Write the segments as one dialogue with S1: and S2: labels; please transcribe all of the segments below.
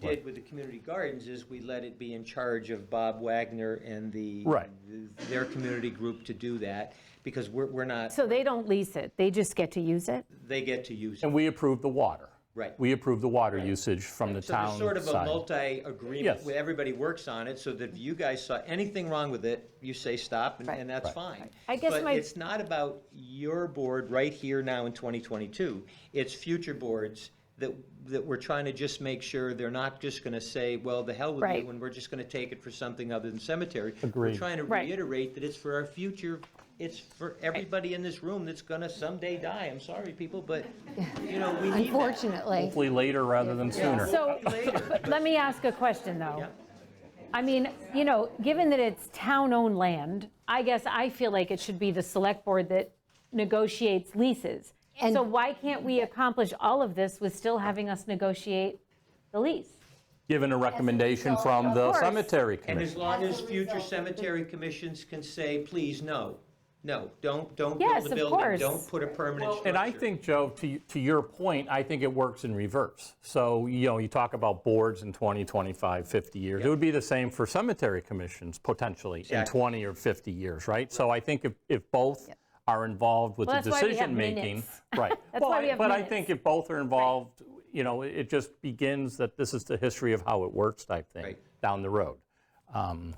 S1: did with the community gardens is we let it be in charge of Bob Wagner and the.
S2: Right.
S1: Their community group to do that, because we're, we're not,
S3: So they don't lease it, they just get to use it?
S1: they get to use it.
S2: And we approve the water.
S1: Right.
S2: We approve the water usage from the
S1: So there's
S2: town
S1: sort of a
S2: side.
S1: multi-agreement,
S2: Yes.
S1: where everybody works on it, so that if you guys saw anything wrong with it, you say stop, and,
S3: Right.
S1: and that's fine.
S3: I guess my-
S1: But it's not about your board right here now in 2022. It's future boards that, that we're trying to just make sure they're not just gonna say, well, the hell with
S3: Right.
S1: you, and we're just gonna take it for something other than cemetery. We're
S2: Agreed.
S1: trying to
S3: Right.
S1: reiterate that it's for our future, it's for everybody in this room that's gonna someday die. I'm sorry, people, but, you know, we need that.
S4: Unfortunately,
S2: Hopefully later rather than sooner.
S3: So, but let me ask a question, though.
S1: Yeah.
S3: I mean, you know, given that it's town-owned land, I guess I feel like it should be the select board that negotiates leases.
S4: And-
S3: So why can't we accomplish all of this with still having us negotiate the lease?
S2: Given a recommendation from the
S3: course.
S2: cemetery
S1: And as
S2: commission.
S1: long as future cemetery commissions can say, please, no, no, don't, don't
S3: Yes,
S1: build a
S3: of
S1: building,
S3: course.
S1: don't put a permanent structure.
S2: And I think, Joe, to, to your point, I think it works in reverse. So, you know, you talk about boards in 20, 25, 50 years. It would be the same for cemetery commissions potentially in
S1: Exactly.
S2: 20 or 50 years, right? So I think if, if both are involved with the
S3: Well, that's why we have
S2: decision making.
S3: minutes.
S2: Right.
S3: That's why
S2: Well,
S3: we have
S2: But I
S3: minutes.
S2: think if both are involved, you know, it- it just begins that this is the history of how it works type thing
S1: Right.
S2: down the road. Um,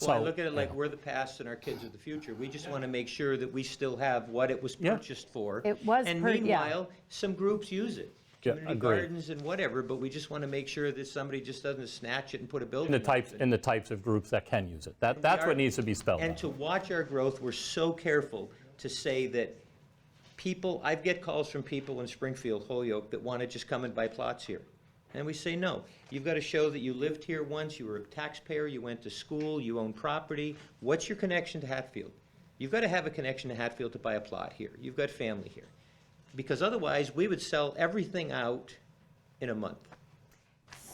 S1: Well, I
S2: so-
S1: look at it like we're the past and our kids are the future. We just want to make sure that we still have what it was purchased for.
S3: It was
S1: And
S3: pur- yeah.
S1: meanwhile, some groups use it.
S2: Yeah,
S1: Community
S2: agreed.
S1: gardens and whatever, but we just want to make sure that somebody just doesn't snatch it and put a building.
S2: The
S1: up.
S2: types, and the types of groups that can use it. That, that's what needs to be spelled
S1: And
S2: out.
S1: to watch our growth, we're so careful to say that people, I get calls from people in Springfield, Holyoke, that want to just come and buy plots here. And we say, no, you've got to show that you lived here once, you were a taxpayer, you went to school, you own property. What's your connection to Hatfield? You've got to have a connection to Hatfield to buy a plot here. You've got family here. Because otherwise, we would sell everything out in a month.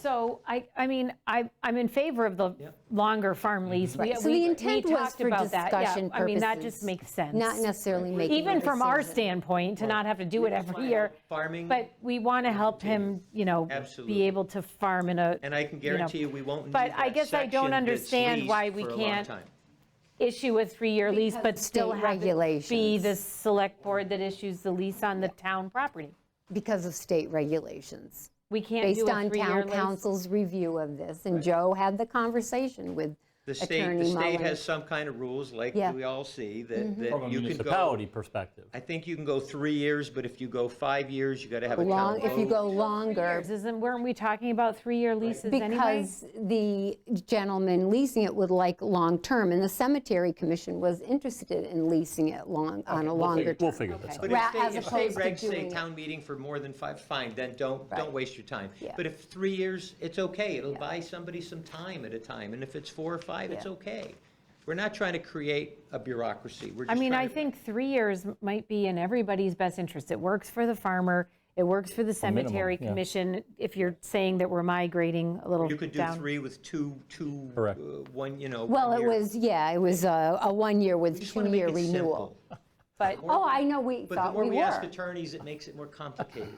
S3: So I, I mean, I, I'm in favor of the
S1: Yep.
S3: longer farm lease. We-
S4: Right. So
S3: we-
S4: the
S3: we
S4: intent was
S3: talked
S4: for
S3: about that. Yeah.
S4: discussion
S3: I mean, that
S4: purposes,
S3: just makes sense.
S4: not necessarily making a
S3: Even from our
S4: decision.
S3: standpoint, to not have to do it every year.
S1: Farming.
S3: But we want to help him, you know,
S1: Absolutely.
S3: be able to farm in a.
S1: And I can
S3: know,
S1: guarantee you, we won't need
S3: But I
S1: that
S3: guess I don't
S1: section that's
S3: understand why
S1: leased
S3: we
S1: for a long
S3: can't
S1: time.
S3: issue a three-year lease,
S4: Because
S3: but
S4: of
S3: still
S4: state
S3: have it be
S4: regulations.
S3: the select board that issues the lease on the town property.
S4: because of state regulations,
S3: We can't do
S4: based
S3: a
S4: on
S3: three-year
S4: town
S3: lease.
S4: council's review of this. And Joe had the conversation with
S1: The state, the
S4: Attorney
S1: state
S4: Mullen.
S1: has some kind of rules, like
S4: Yeah. Mm-hmm.
S1: we all see, that,
S2: From a
S1: that you can
S2: municipality
S1: go,
S2: perspective.
S1: I think you can go three years, but if you go five years, you gotta have a town
S4: Long, if you
S1: vote.
S4: go longer,
S3: Isn't, weren't we talking about three-year leases anyway?
S4: because the gentleman leasing it would like long-term, and the cemetery commission was interested in leasing it long, on a
S2: We'll figure-
S4: longer
S2: We'll
S4: term.
S2: figure this out.
S1: But
S4: ra-
S1: if
S4: as
S1: state, if state
S4: opposed to
S1: regs say
S4: doing it.
S1: town meeting for more than five, fine, then don't, don't waste your time. But if three years, it's okay, it'll buy somebody some time at a time, and if it's four or five, it's okay. We're not trying to create a bureaucracy, we're
S3: I
S1: just
S3: mean, I
S1: trying to-
S3: think three years m- might be in everybody's best interest. It works for the farmer, it works for the cemetery
S2: yeah.
S3: commission, if you're saying that we're migrating a little
S1: You could do
S3: down.
S1: three with two, two,
S2: Correct.
S1: uh, one, you know,
S4: Well,
S1: one
S4: it
S1: year.
S4: was, yeah, it was a, a one-year with
S1: Just wanna make
S4: two-year
S1: it
S4: renewal.
S1: simple.
S3: But
S4: Oh, I know, we
S1: But the
S4: thought
S1: more
S4: we
S1: we ask
S4: were.
S1: attorneys, it makes it more complicated.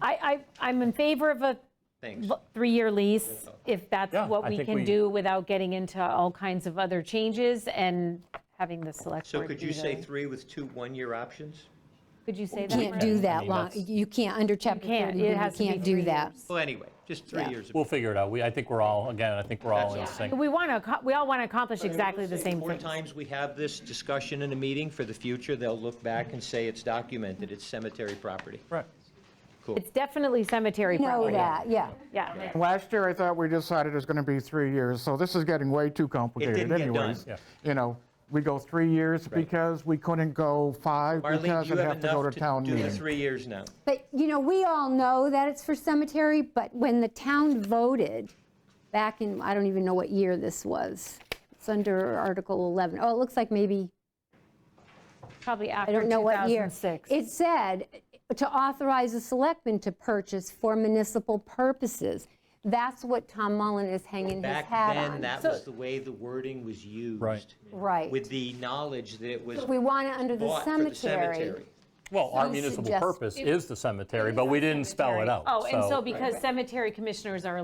S3: I, I, I'm in favor of a
S1: Thanks.
S3: l- three-year lease, if that's
S2: Yeah,
S3: what
S2: I
S3: we
S2: think
S3: can
S2: we-
S3: do without getting into all kinds of other changes and having the select
S1: So
S3: board
S1: could
S3: be
S1: you say
S3: the-
S1: three with two one-year options?
S3: Could you say that?
S4: Can't
S3: Brad?
S4: do
S2: I
S4: that
S2: mean,
S4: long,
S2: that's-
S4: you can't, under chapter
S3: can't.
S4: 30,
S3: It
S4: you
S3: has to be
S4: can't do
S3: three
S4: that.
S3: years.
S1: Well, anyway, just three years. of-
S2: We'll figure it out. We, I think we're all, again, I think we're all in
S1: That's-
S2: sync.
S3: We want to, we all want to accomplish exactly the same
S1: More
S3: thing.
S1: times we have this discussion in a meeting for the future, they'll look back and say it's documented, it's cemetery property.
S2: Right.
S3: It's definitely cemetery
S4: Know
S3: property.
S4: that, yeah.
S3: Yeah.
S5: Last year, I thought we decided it was going to be three years, so this is getting way too
S1: get
S5: complicated
S1: done.
S5: anyways.
S1: Yeah.
S5: You know, we go three years because we couldn't go five
S1: Marlene,
S5: because
S1: you
S5: it'd
S1: have
S5: have to go to
S1: enough to
S5: town
S1: do the
S5: meeting.
S1: three years now.
S4: But, you know, we all know that it's for cemetery, but when the town voted back in, I don't even know what year this was. It's under Article 11. Oh, it looks like maybe,
S3: Probably
S4: I
S3: after
S4: don't know what year.
S3: 2006.
S4: It said to authorize the selectmen to purchase for municipal purposes. That's what Tom Mullen is hanging his
S1: Back
S4: hat on.
S1: then, that was the way the wording was used.
S2: Right.
S4: Right.
S1: With the knowledge that it was
S4: We want it under the
S1: bought for the cemetery.
S2: Well, our
S4: You
S2: municipal
S4: suggest-
S2: purpose is the cemetery, but we didn't spell it out.
S3: Oh, and so because cemetery commissioners are